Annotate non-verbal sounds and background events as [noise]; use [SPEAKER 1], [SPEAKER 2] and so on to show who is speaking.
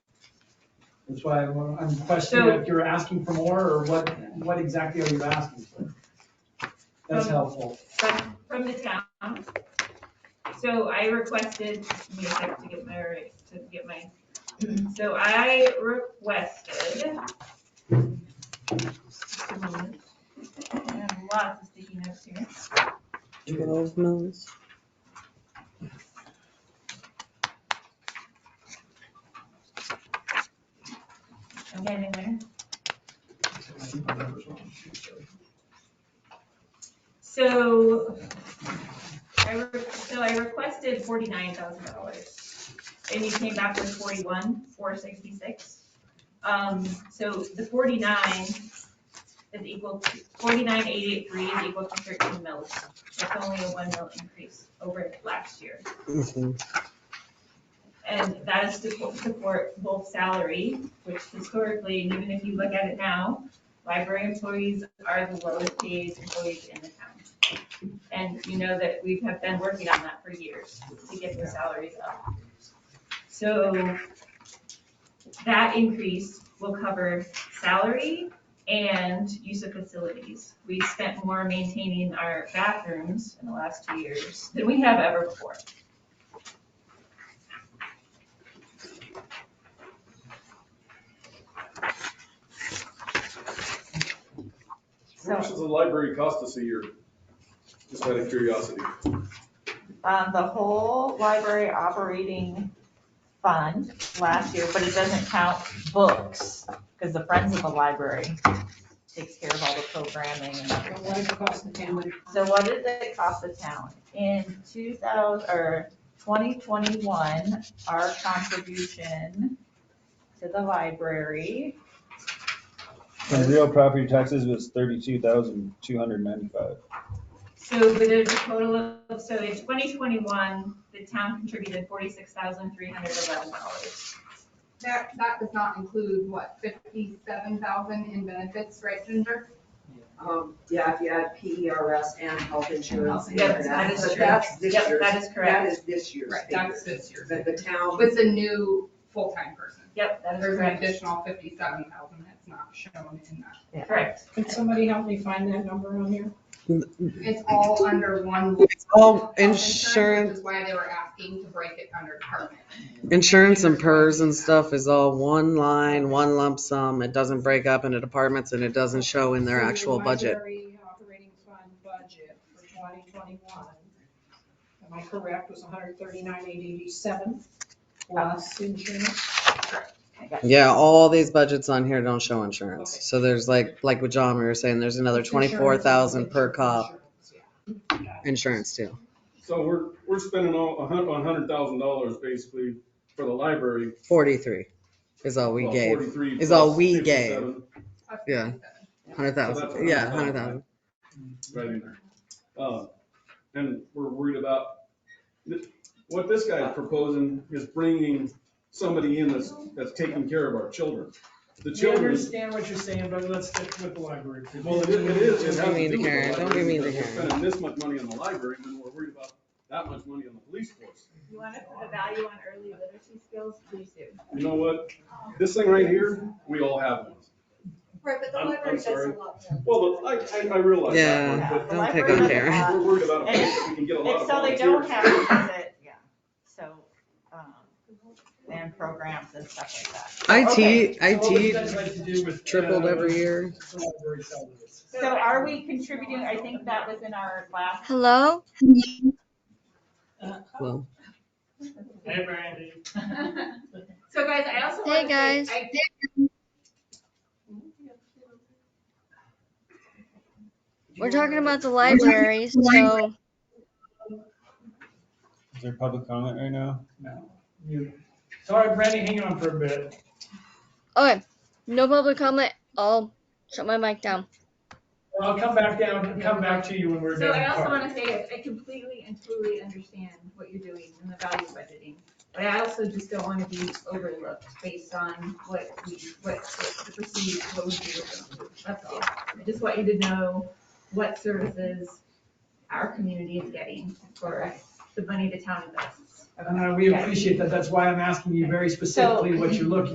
[SPEAKER 1] That's why I'm I'm questioning
[SPEAKER 2] So-
[SPEAKER 1] if you're asking for more or what, what exactly are you asking for? That's helpful.
[SPEAKER 2] from, from the town. So I requested, give me a sec to get my, right- to get my, so I requested. Just a moment. I have lots of sticky notes here.
[SPEAKER 3] Twelve mils.
[SPEAKER 2] I'm getting there. So I, re- so I requested forty-nine thousand dollars, and you came back with forty-one, four sixty-six. Um, so the forty-nine is equal, to forty-nine eight eight three is equal to thirteen mils. That's only a one mil increase over last year. And that is to co- support both salary, which historically, and even if you look at it now, library employees are the lowest paid employees in the town. And you know that we have been working on that for years to get their salaries up. So that increase will cover salary and use of facilities. We've spent more maintaining our bathrooms in the last two years than we have ever before.
[SPEAKER 4] How much does the library cost us a year? Just out of curiosity.
[SPEAKER 5] Um, the whole library operating fund last year, but it doesn't count books, because the Friends of the Library takes care of all the programming and everything.
[SPEAKER 6] What does it cost the family?
[SPEAKER 5] So what did it cost the town? In two thousand, or twenty twenty-one, our contribution to the library,
[SPEAKER 7] And real property taxes was thirty-two thousand, two hundred ninety-five.
[SPEAKER 2] So, but there's a total of, so in twenty twenty-one, the town contributed forty-six thousand three hundred eleven dollars.
[SPEAKER 6] That, that does not include, what, fifty-seven thousand in benefits, right, Ginger?
[SPEAKER 8] Um, yeah, if you add PERS and health insurance. and
[SPEAKER 2] Yes, that is
[SPEAKER 8] but
[SPEAKER 2] true.
[SPEAKER 8] That's this
[SPEAKER 2] Yep,
[SPEAKER 8] year's,
[SPEAKER 2] that is
[SPEAKER 8] that
[SPEAKER 2] correct.
[SPEAKER 8] is this year's figure.
[SPEAKER 6] That's this year.
[SPEAKER 8] But the town,
[SPEAKER 6] It's a new full-time person.
[SPEAKER 2] Yep, that is
[SPEAKER 6] There's an
[SPEAKER 2] correct.
[SPEAKER 6] additional fifty-seven thousand that's not shown in that.
[SPEAKER 2] Correct.
[SPEAKER 9] Could somebody help me find that number on here?
[SPEAKER 6] It's all under one.
[SPEAKER 3] It's all
[SPEAKER 6] health Which
[SPEAKER 3] insurance,
[SPEAKER 6] is why they were asking to break it under department.
[SPEAKER 3] insurance and PERS and stuff is all one line, one lump sum. It doesn't break up into departments and it doesn't show in their
[SPEAKER 9] So the
[SPEAKER 3] actual budget.
[SPEAKER 9] library operating fund budget for 2021, am I correct, was 139,887 plus insurance?
[SPEAKER 3] Yeah, all these budgets on here don't show insurance.
[SPEAKER 9] Okay.
[SPEAKER 3] So there's like, like what John, we were saying, there's another twenty-four thousand per cop
[SPEAKER 9] Insurance, yeah.
[SPEAKER 3] insurance too.
[SPEAKER 4] So we're, we're spending all, a hun, a hundred thousand dollars basically for the library.
[SPEAKER 3] Forty-three is all we
[SPEAKER 4] Well,
[SPEAKER 3] gave,
[SPEAKER 4] 43
[SPEAKER 3] Is all
[SPEAKER 4] plus
[SPEAKER 3] we gave.
[SPEAKER 4] 57,
[SPEAKER 6] Plus
[SPEAKER 3] Yeah.
[SPEAKER 6] 57.
[SPEAKER 3] hundred
[SPEAKER 4] So
[SPEAKER 3] thousand,
[SPEAKER 4] that's 100,000.
[SPEAKER 3] yeah, hundred thousand.
[SPEAKER 4] Right in there. Uh, And we're worried about, th- what this guy is proposing is bringing somebody in that's, that's taking care of our children. The
[SPEAKER 1] We
[SPEAKER 4] children,
[SPEAKER 1] understand what you're saying, but let's stick with the library.
[SPEAKER 4] well, it is, it is. it has
[SPEAKER 3] Don't be
[SPEAKER 4] to do with the
[SPEAKER 3] mean to Karen. Don't be
[SPEAKER 4] library,
[SPEAKER 3] mean to
[SPEAKER 4] because we're
[SPEAKER 3] Karen.
[SPEAKER 4] Spending this much money on the library, and then we're worried about that much money on the police force.
[SPEAKER 2] You want to put a value on early literacy skills, please do.
[SPEAKER 4] You know what? This thing right here, we all have one.
[SPEAKER 8] right, but the
[SPEAKER 4] I'm- I'm
[SPEAKER 8] library does
[SPEAKER 4] sorry.
[SPEAKER 8] a lot more.
[SPEAKER 4] Well, I, I, I realize that
[SPEAKER 3] Yeah,
[SPEAKER 4] one, but
[SPEAKER 3] don't pick
[SPEAKER 5] Library
[SPEAKER 3] on
[SPEAKER 5] doesn't
[SPEAKER 3] Karen.
[SPEAKER 5] have-
[SPEAKER 4] we're worried about a place that we can get a lot
[SPEAKER 5] it's
[SPEAKER 4] of
[SPEAKER 5] so they don't
[SPEAKER 4] volunteers.
[SPEAKER 5] have to visit, yeah, so, um, and programs and stuff like that.
[SPEAKER 3] IT,
[SPEAKER 1] What would you
[SPEAKER 3] IT
[SPEAKER 1] guys like to do with?
[SPEAKER 3] tripled
[SPEAKER 1] uh,
[SPEAKER 3] every year.
[SPEAKER 1] the library salaries?
[SPEAKER 5] So are we contributing, I think that was in our last
[SPEAKER 10] Hello?
[SPEAKER 3] Well,
[SPEAKER 1] Hey, Brandy.
[SPEAKER 2] [laughs] So guys, I also
[SPEAKER 10] Hey,
[SPEAKER 2] want to say,
[SPEAKER 10] guys.
[SPEAKER 2] I,
[SPEAKER 10] We're talking about the library, so
[SPEAKER 7] Is there public comment right now?
[SPEAKER 1] You- Sorry, Brandy, hang on for a bit.
[SPEAKER 10] okay, no public comment. I'll shut my mic down.
[SPEAKER 1] I'll come back down, come back to you when we're
[SPEAKER 2] so
[SPEAKER 1] done.
[SPEAKER 2] I also want to say, I completely and totally understand what you're doing and the value budgeting. But I also just don't want to be overlooked based on what we, what the perceived, what we do. That's all. I just want you to know what services our community is getting for the money the town invests.
[SPEAKER 1] And uh, we appreciate that. That's why I'm asking you very specifically what you're looking